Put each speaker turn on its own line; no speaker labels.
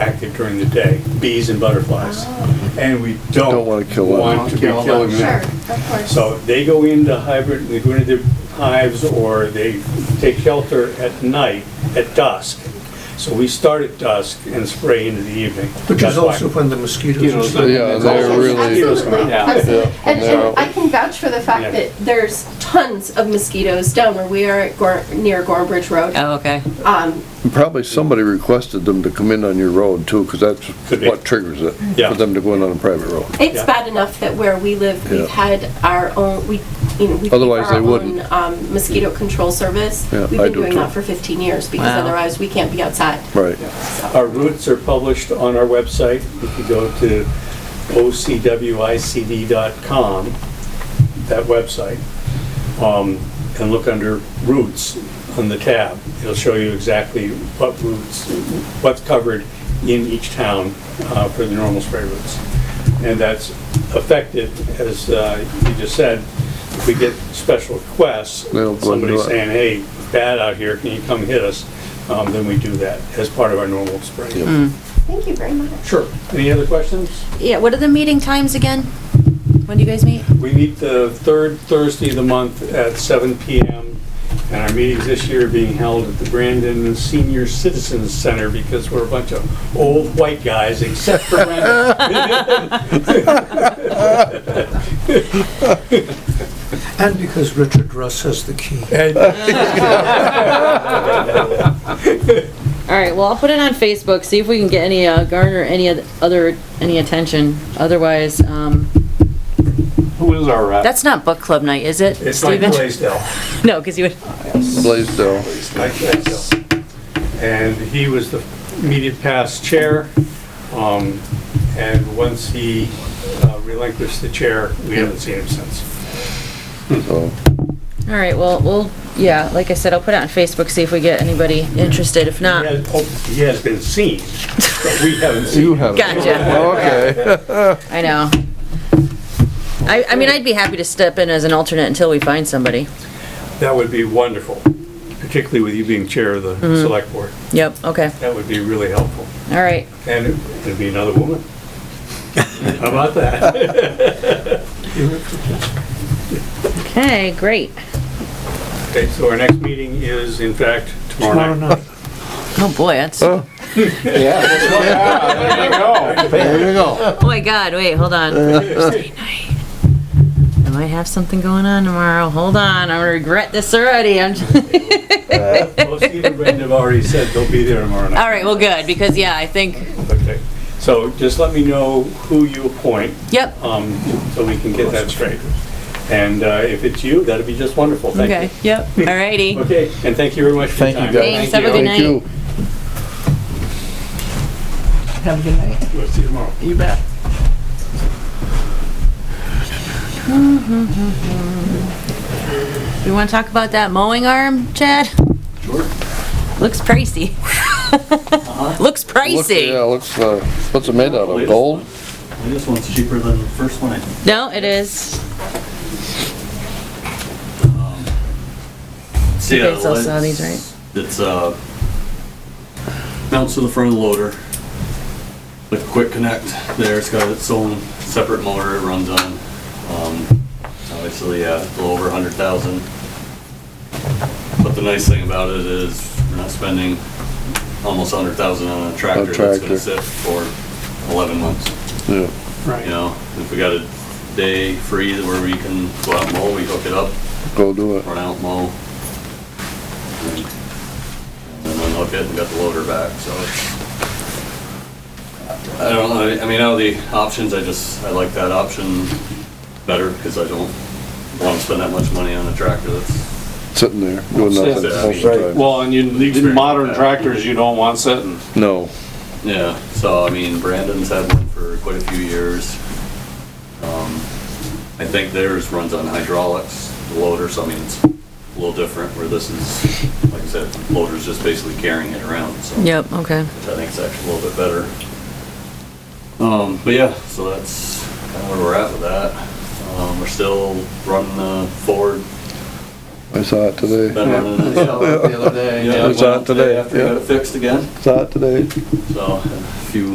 active during the day, bees and butterflies. And we don't
Don't wanna kill them.
want to be
Don't kill them.
killing
Sure,
them.
of course.
So they go into hybrid, they go into their hives or they take shelter at night at dusk. So we start at dusk and spray into the evening.
Which is
That's why-
also when the mosquitoes are
Mosquitoes.
starting.
Yeah,
to-
they're really-
Absolutely,
Yeah.
absolutely.
Yeah,
And,
they're
and
out.
I can vouch for the fact
Yeah.
that there's tons of mosquitoes down where we are at Gor, near Gorbridge Road.
Oh, okay.
Um,
And Probably somebody requested them to come in on your road too, because that's
Could be.
what triggers it,
Yeah.
for them to go in on a private road.
it's
Yeah.
bad enough that where we live, we've
Yeah.
had our own, we, you know, we keep
Otherwise,
our
they wouldn't.
own um, mosquito control service.
Yeah,
We've
I
been
do
doing
too.
that for 15 years because
Wow.
otherwise we can't be outside.
Right.
Our routes are published on our website. If you go to ocwicd.com, that website, um, and look under routes on the tab, it'll show you exactly what routes, what's covered in each town uh, for the normal spray routes. And that's effective, as uh, you just said, if we get special requests,
They'll go and do
somebody
it.
saying, hey, bad out here, can you come hit us? Um, Then we do that as part of our normal spray.
Mm.
Thank you very much.
Sure. Any other questions?
Yeah, what are the meeting times again? When do you guys meet?
We meet the third Thursday of the month at 7 PM, and our meetings this year are being held at the Brandon Senior Citizens Center because we're a bunch of old white guys, except for Brandon.
And because Richard Russ has the key.
All right, well, I'll put it on Facebook, see if we can get any, uh, garner any oth- other, any attention. Otherwise, um,
Who is our uh, rep?
That's not book club night, is it,
It's like
Stephen?
Blaisdell.
No, because you would,
Blaisdell,
It's Mike Blaisdell. And he was the immediate past chair. um, And once he uh, relinquished the chair, we haven't seen him since.
so,
all right, well, we'll, yeah, like I said, I'll put it on Facebook, see if we get anybody interested. If
He
not,
has- oh, He has been seen, but we haven't seen
you
him.
have.
gotcha,
Okay,
I know. I, I mean, I'd be happy to step in as an alternate until we find somebody.
That would be wonderful, particularly with you being chair of the
Mm-hmm.
select board.
Yep, okay,
That would be really helpful.
all right.
And it would be another woman. How about that?
Okay, great.
Okay, so our next meeting is, in fact, tomorrow
Tomorrow
night.
night.
oh boy, that's,
Oh.
oh
There you go.
there you go.
Oh my god, wait, hold on. Thursday night. I might have something going on tomorrow. Hold on, I'm gonna regret this already. I'm
Well, Steve and Brendan have already said they'll be there tomorrow night.
all right, well, good, because, yeah, I think,
Okay, so just let me know who you appoint,
yep,
um, so we can get that straight. And uh, if it's you, that'd be just wonderful,
okay,
thank you.
yep, all righty.
Okay, and thank you very much for your
Thank you,
time.
guys.
Thanks, have a
Thank
good night.
you.
Have a good night.
We'll see you tomorrow.
You bet.
We wanna talk about that mowing arm, Chad?
Sure. Uh-huh.
Looks pricey. Looks
Looks- Yeah,
pricey.
looks, uh, what's it made out of, gold?
This one's cheaper than the first one, I think.
No, it is.
See,
guys
uh,
all saw these,
it's- It's, uh, mounts to the front of the loader. Like a quick connect there, it's got its own separate motor it runs on. Um, Obviously, yeah, a little over a hundred thousand. But the nice thing about it is we're not spending almost a hundred thousand on a tractor that's
tractor.
gonna sit for eleven months.
Yeah,
You know, if we got a day free where we can go out and mow, we hook it up,
go do it.
run out and mow. And then unhook it and got the loader back, so it's. I don't know, I- I mean, out of the options, I just, I like that option better because I don't want to spend that much money on a tractor that's.
Sitting there, doing
Sitting
nothing
there.
most of the time.
Well, and you, these modern tractors, you don't want sitting.
No,
Yeah, so I mean, Brandon's had one for quite a few years. Um, I think theirs runs on hydraulics, the loader, so I mean, it's a little different where this is, like I said, loader's just basically carrying it around, so.
Yep, okay.
Which I think is actually a little bit better. Um, but yeah, so that's kind of where we're at with that. Um, we're still running the Ford
I saw it today.
uh, Been running it.
It's out
well,
today,
After I got it fixed again,
Saw it today.
so a few